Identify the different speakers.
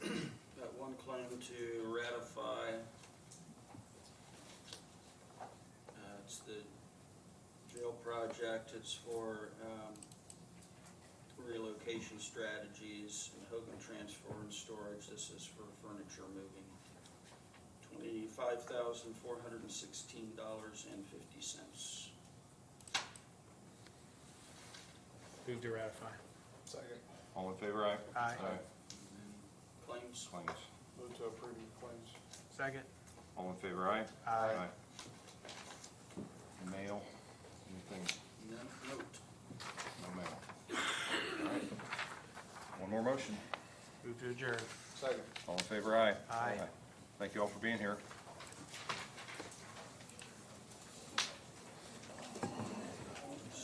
Speaker 1: to ratify. Uh, it's the jail project, it's for, um, relocation strategies and Hogan Transfer and Storage, this is for furniture moving. Twenty-five thousand, four hundred and sixteen dollars and fifty cents.
Speaker 2: Move to ratify.
Speaker 3: Second.
Speaker 4: All in favor, aye?
Speaker 2: Aye.
Speaker 1: Claims,
Speaker 4: Claims.
Speaker 3: Move to approve the claims.
Speaker 2: Second.
Speaker 4: All in favor, aye?
Speaker 2: Aye.
Speaker 4: Mail, anything,
Speaker 1: none note.
Speaker 4: no mail. All right. One more motion.
Speaker 2: Move to adjourn.
Speaker 3: Second.
Speaker 4: All in favor, aye?
Speaker 2: Aye.
Speaker 4: Thank you all for being here.